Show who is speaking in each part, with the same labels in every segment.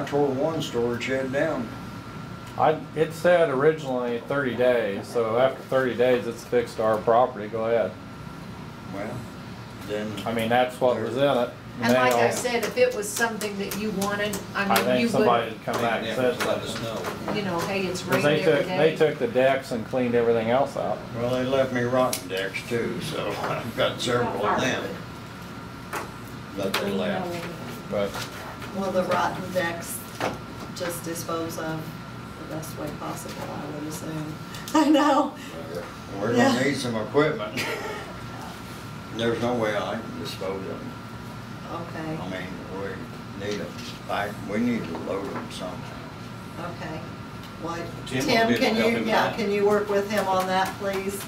Speaker 1: tore one storage shed down.
Speaker 2: I, it said originally thirty days, so after thirty days, it's fixed to our property, go ahead.
Speaker 1: Well, then,
Speaker 2: I mean, that's what was in it.
Speaker 3: And like I
Speaker 2: Now,
Speaker 3: said, if it was something that you wanted,
Speaker 2: I
Speaker 3: I mean, you
Speaker 2: think
Speaker 3: would,
Speaker 2: somebody had come back and said
Speaker 4: Let us
Speaker 2: something.
Speaker 4: know.
Speaker 3: you know, hey, it's
Speaker 2: 'Cause
Speaker 3: rained
Speaker 2: they
Speaker 3: every
Speaker 2: took, they
Speaker 3: day.
Speaker 2: took the decks and cleaned everything else out.
Speaker 1: well, they left me rotten decks too, so I've got several of them
Speaker 4: Them. But they left.
Speaker 2: But
Speaker 5: Well, the rotten decks just dispose of the best way possible, I would assume. I know.
Speaker 1: We're
Speaker 5: Yeah.
Speaker 1: gonna need some equipment. There's no way I can dispose of them.
Speaker 5: Okay,
Speaker 1: I mean, we need them, like, we need to load them somehow.
Speaker 5: okay. Well,
Speaker 4: Tim will be
Speaker 5: Tim, can
Speaker 4: able to help him
Speaker 5: you,
Speaker 4: with
Speaker 5: yeah,
Speaker 4: that.
Speaker 5: can you work with him on that, please?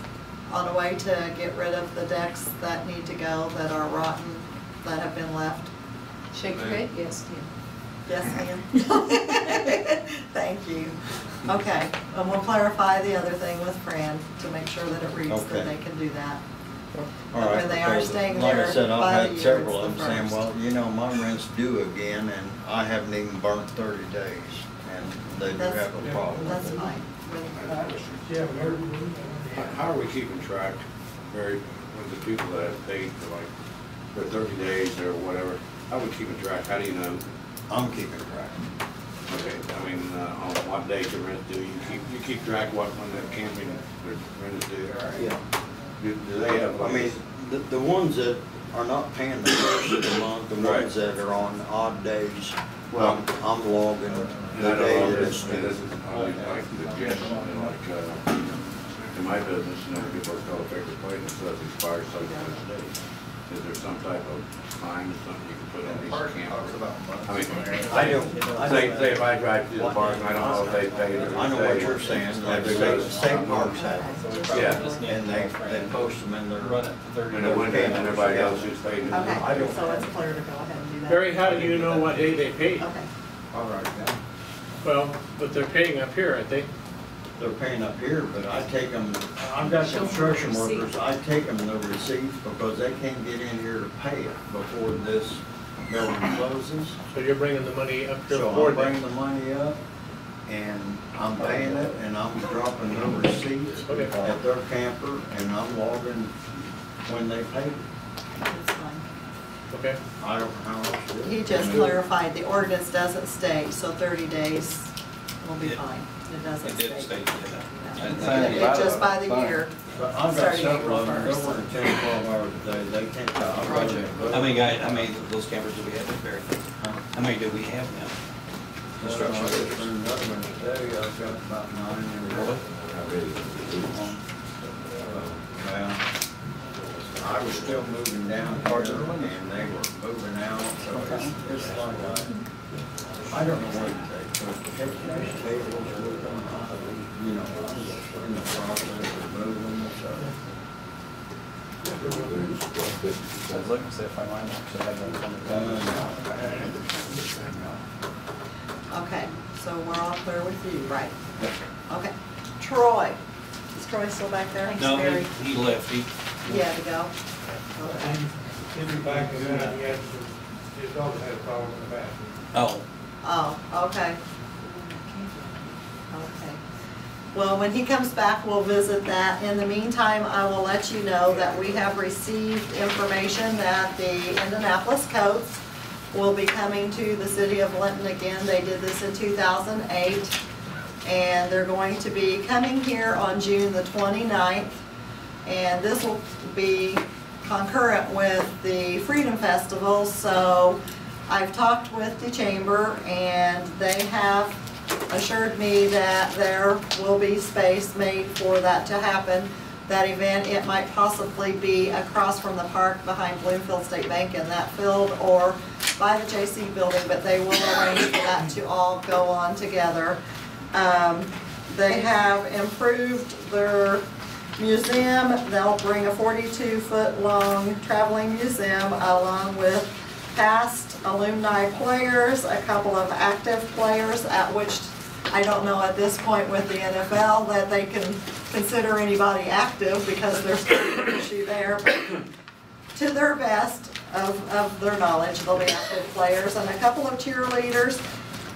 Speaker 5: On a way to get rid of the decks that need to go, that are rotten, that have been left?
Speaker 3: Shake your head, yes, yeah.
Speaker 5: Yes, ma'am. Thank you. Okay, and we'll clarify the other thing with Fran to make sure that it reads that
Speaker 1: Okay.
Speaker 5: they can do that.
Speaker 1: All
Speaker 5: But
Speaker 1: right,
Speaker 5: when they are
Speaker 1: because
Speaker 5: staying
Speaker 1: Like I
Speaker 5: there
Speaker 1: said,
Speaker 5: by
Speaker 1: I've
Speaker 5: the
Speaker 1: had
Speaker 5: year,
Speaker 1: several
Speaker 5: it's
Speaker 1: of
Speaker 5: the
Speaker 1: them saying,
Speaker 5: first.
Speaker 1: well, you know, my rent's due again, and I haven't even burnt thirty days, and they do
Speaker 5: That's-
Speaker 1: have a problem.
Speaker 5: That's
Speaker 1: with it.
Speaker 5: fine.
Speaker 6: How- How are we keeping track, Mary, with the people that have paid for like, for thirty days or whatever? How are we keeping track? How do you know?
Speaker 1: I'm keeping track.
Speaker 6: Okay, I mean, uh, on what day your rent due, you keep, you keep track what, when that camping, their rent is due?
Speaker 1: Yeah.
Speaker 6: Do do they have
Speaker 1: I mean,
Speaker 6: like,
Speaker 1: the, the ones that are not paying the first of the month, the
Speaker 6: Right.
Speaker 1: ones that are on odd days,
Speaker 6: Well- uh,
Speaker 1: I'm, I'm logging
Speaker 6: and
Speaker 1: the
Speaker 6: I
Speaker 1: day
Speaker 6: don't know,
Speaker 1: that
Speaker 6: this,
Speaker 1: it's
Speaker 6: this
Speaker 1: due.
Speaker 6: is, I mean, like, the jet, like, uh, in my business, you know, people call a paper plate and it says expires such and such date. Is there some type of time or something you can put on these campers? I mean,
Speaker 1: I don't- I
Speaker 6: Say,
Speaker 1: don't-
Speaker 6: say if I drive through the park and I don't know if they paid or.
Speaker 1: I know what you're saying, like, state, state parks have them,
Speaker 6: Yeah,
Speaker 1: and they, they post them in their.
Speaker 4: Run it for thirty
Speaker 6: and it went in and everybody else who's paid. it. I
Speaker 5: Okay,
Speaker 6: don't-
Speaker 5: so it's clear to go ahead and do that.
Speaker 7: Barry, how do you know what day they paid?
Speaker 5: Okay,
Speaker 1: All right, now.
Speaker 7: Well, but they're paying up here, aren't they?
Speaker 1: they're paying up here, but I take them, I've got
Speaker 3: Show 'em the
Speaker 1: construction
Speaker 3: receipt.
Speaker 1: workers, I take them the receipts because they can't get in here to pay it before this building closes.
Speaker 7: So you're bringing the money up here
Speaker 1: So
Speaker 7: for
Speaker 1: I'm
Speaker 7: them.
Speaker 1: bringing the money up and I'm paying it and I'm dropping the receipts
Speaker 7: Okay.
Speaker 1: at their camper and I'm logging when they pay. it.
Speaker 5: that's fine.
Speaker 7: Okay,
Speaker 1: I don't know how else to do it.
Speaker 5: He just clarified, the ordinance doesn't state, so thirty days will be
Speaker 4: Yeah.
Speaker 5: fine. It doesn't
Speaker 4: It
Speaker 5: state.
Speaker 4: did state,
Speaker 5: No.
Speaker 4: yeah.
Speaker 5: It-
Speaker 2: Fine.
Speaker 5: It's just by the year.
Speaker 1: But I've got
Speaker 5: Starting
Speaker 1: several of them,
Speaker 5: April
Speaker 1: they're working ten, twelve hours a day, they can't. I wrote it, but-
Speaker 4: How many guy, how many of those campers do we have at Berry? How many do we have now?
Speaker 1: Construction. Another one today, I've got about nine in a row. Well, I was still moving down here and they were moving out, so it's, it's like, I, I don't know what they put, picnic tables with them, you know, in the process of moving, so.
Speaker 4: I was looking to see if I might actually have that
Speaker 5: Okay, so we're all clear with you, right?
Speaker 1: uh,
Speaker 5: Okay. Troy, is Troy still back there?
Speaker 4: No,
Speaker 5: Barry?
Speaker 4: he, he left, he,
Speaker 5: You had to go? Okay.
Speaker 8: back and then he had some, his dog had a problem in the bathroom.
Speaker 4: oh,
Speaker 5: Oh, okay. Okay. Well, when he comes back, we'll visit that. In the meantime, I will let you know that we have received information that the Indianapolis Coats will be coming to the city of Linton again. They did this in 2008. And they're going to be coming here on June the 29th. And this will be concurrent with the Freedom Festival. So I've talked with the chamber and they have assured me that there will be space made for that to happen. That event, it might possibly be across from the park behind Bloomfield State Bank in that field or by the JC building, but they will arrange for that to all go on together. Um, They have improved their museum. They'll bring a 42-foot-long traveling museum along with past alumni players, a couple of active players, at which I don't know at this point with the NFL that they can consider anybody active because there's an issue there. but to their best of, of their knowledge, they'll be active players and a couple of cheerleaders.